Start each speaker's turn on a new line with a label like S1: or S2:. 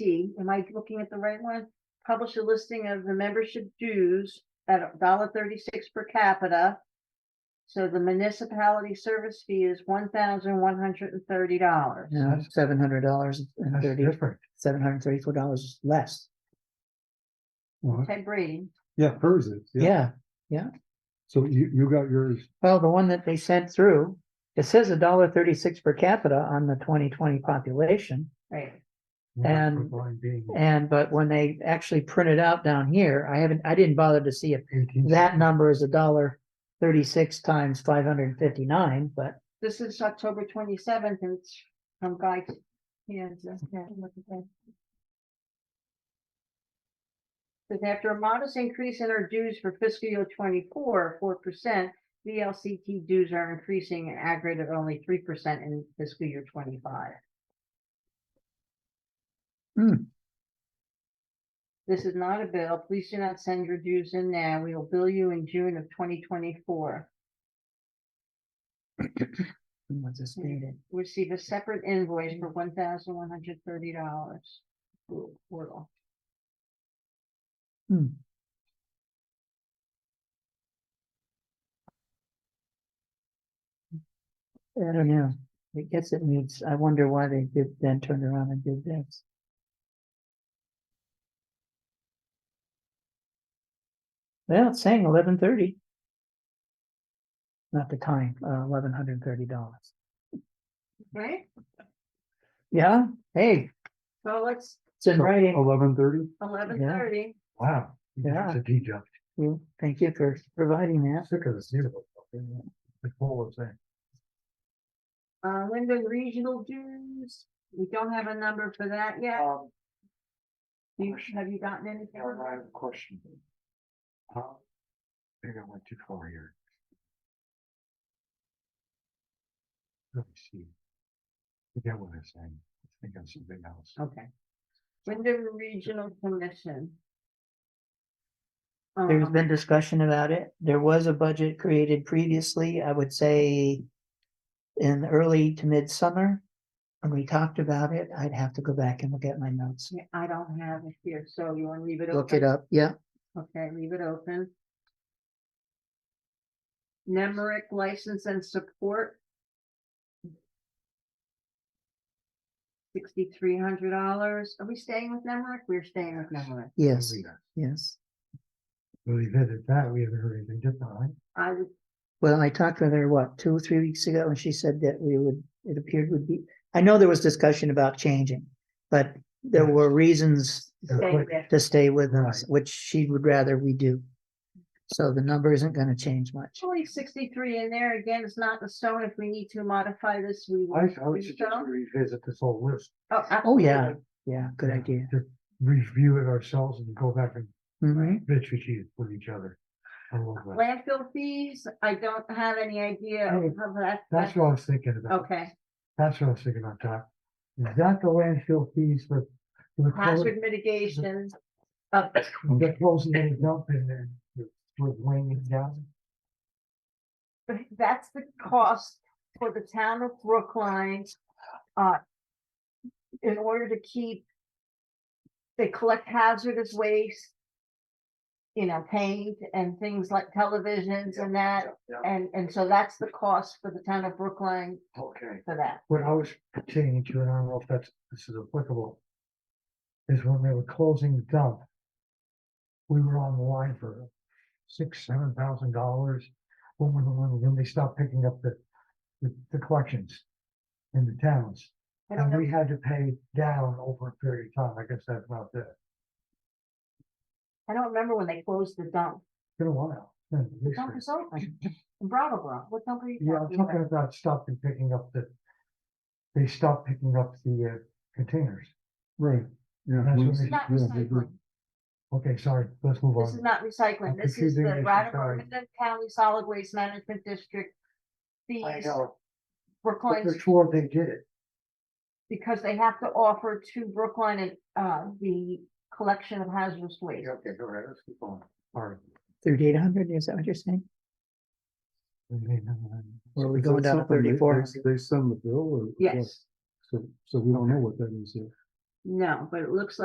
S1: D, am I looking at the right one? Publish a listing of the membership dues at a dollar thirty-six per capita. So the municipality service fee is one thousand one hundred and thirty dollars.
S2: No, seven hundred dollars and
S3: That's
S2: thirty,
S3: different.
S2: seven hundred and thirty-four dollars less.
S3: Well,
S1: Ted Brady,
S3: Yeah, hers is.
S2: Yeah,
S3: So you, you got yours.
S2: well, the one that they sent through, it says a dollar thirty-six per capita on the twenty twenty population.
S1: right,
S3: not for
S2: And-
S3: blind being
S2: And, but when they actually print it out down here, I haven't, I didn't bother to see if
S3: 18.
S2: that number is a dollar thirty-six times five hundred and fifty-nine, but
S1: this is October twenty-seventh and it's from Guy. Kansas. Yeah, look at that. Says after a modest increase in our dues for fiscal year twenty-four, four percent, VLCT dues are increasing an aggregate of only three percent in fiscal year twenty-five.
S2: Hmm.
S1: This is not a bill. Please do not send your dues in now. We will bill you in June of twenty twenty-four.
S2: was this needed?
S1: receive a separate invoice for
S2: Mm-hmm.
S1: one thousand one hundred thirty dollars. Portal.
S2: Hmm. I don't know. I guess it needs, I wonder why they did then turned around and did this. Well, it's saying eleven thirty. Not the time, uh, eleven hundred and thirty dollars.
S1: Right,
S2: Yeah, hey,
S1: so let's
S2: it's in writing.
S3: Eleven thirty?
S1: eleven thirty.
S3: Wow.
S2: Yeah.
S3: It's a D job.
S2: You- Thank you for providing that.
S3: Sick of this. new one. Like Paul was saying.
S1: Uh, Linden Regional dues, we don't have a number for that yet.
S4: Um,
S2: Oh,
S1: Do you- Have you gotten any?
S4: yeah, I have a question. Uh, Maybe I went too far here. Let me see. Forget what I'm saying. I think I'm something else.
S2: Oh,
S1: Okay. Linden Regional Commission. Um,
S2: There's been discussion about it. There was a budget created previously, I would say. In early to midsummer. When we talked about it, I'd have to go back and look at my notes.
S1: yeah, I don't have it here, so you wanna leave it open?
S2: Look it up, yeah.
S1: Okay, leave it open. Nemrick license and support. Sixty-three hundred dollars. Are we staying with Nemrick? We're staying with Nemrick.
S2: Yes,
S4: Leave it.
S2: yes.
S3: Really vivid that. We haven't heard anything different, right?
S1: I would,
S2: Well, I talked with her, what, two or three weeks ago, and she said that we would, it appeared would be, I know there was discussion about changing. But there
S3: Yes.
S2: were reasons
S3: They're
S1: Stay
S3: quick.
S1: with-
S2: to stay with us,
S3: Right.
S2: which she would rather we do. So the number isn't gonna change much.
S1: actually sixty-three in there. Again, it's not the stone. If we need to modify this, we will.
S3: I, I would
S1: do
S3: suggest
S1: so.
S3: we revisit this whole list.
S1: Oh,
S2: Oh,
S1: absolutely.
S2: Mm-hmm. yeah, yeah, good
S3: Yeah.
S2: idea.
S3: Review it ourselves and go back and
S2: Mhm.
S3: bitch with you, with each other. I love that.
S1: Landfill fees, I don't have any idea
S3: Hey,
S1: of how that.
S3: That's what I was thinking about.
S1: Okay,
S3: That's what I was thinking about, Doc. Is that the landfill fees for? for the close-
S1: hazard mitigation. Uh,
S3: They're closing it up and then we're weighing it down.
S1: But that's the cost for the town of Brookline. Uh. In order to keep. They collect hazardous waste. You know, paint and things like televisions and that,
S4: Yeah,
S1: and, and so that's the cost for the town of Brookline
S4: okay.
S1: for that.
S3: What I was pertaining to, and I don't know if that's, this is applicable. Is when they were closing the dump. We were on the line for six, seven thousand dollars. When, when, when, when they stopped picking up the, the, the collections. In the towns.
S1: I don't
S3: And
S1: know,
S3: we had to pay down over a period of time. I guess that's not that.
S1: I don't remember when they closed the dump.
S3: Been a while. Yeah, at least
S1: Dump
S3: it's-
S1: is open. Bravo, bro. What dump are you
S3: Yeah, I'm
S1: talking
S3: talking
S1: about?
S3: about stopping picking up the. They stopped picking up the uh, containers.
S4: Right, yeah.
S3: That's what
S1: This is
S3: they-
S1: not recycling.
S3: Okay, sorry, let's move
S1: This is
S3: on.
S1: not
S3: I'm
S1: recycling. This is
S3: confusing
S1: the
S3: this, I'm
S1: Brattleboro
S3: sorry.
S1: Midland County Solid Waste Management District.
S3: I
S1: Fees
S3: know, but
S1: Brookline,
S3: they're sure they did it.
S1: because they have to offer to Brookline and, uh, the collection of hazardous waste.
S4: Yeah, Okay, go ahead, let's keep on.
S3: Sorry.
S2: Thirty-eight hundred, is that what you're saying? Or are we
S5: Is that
S2: going down to
S5: something they-
S2: thirty-four?
S5: they- They send the bill or? what?
S1: Yes,
S5: So, so we don't know what that is yet.
S1: No, but it looks like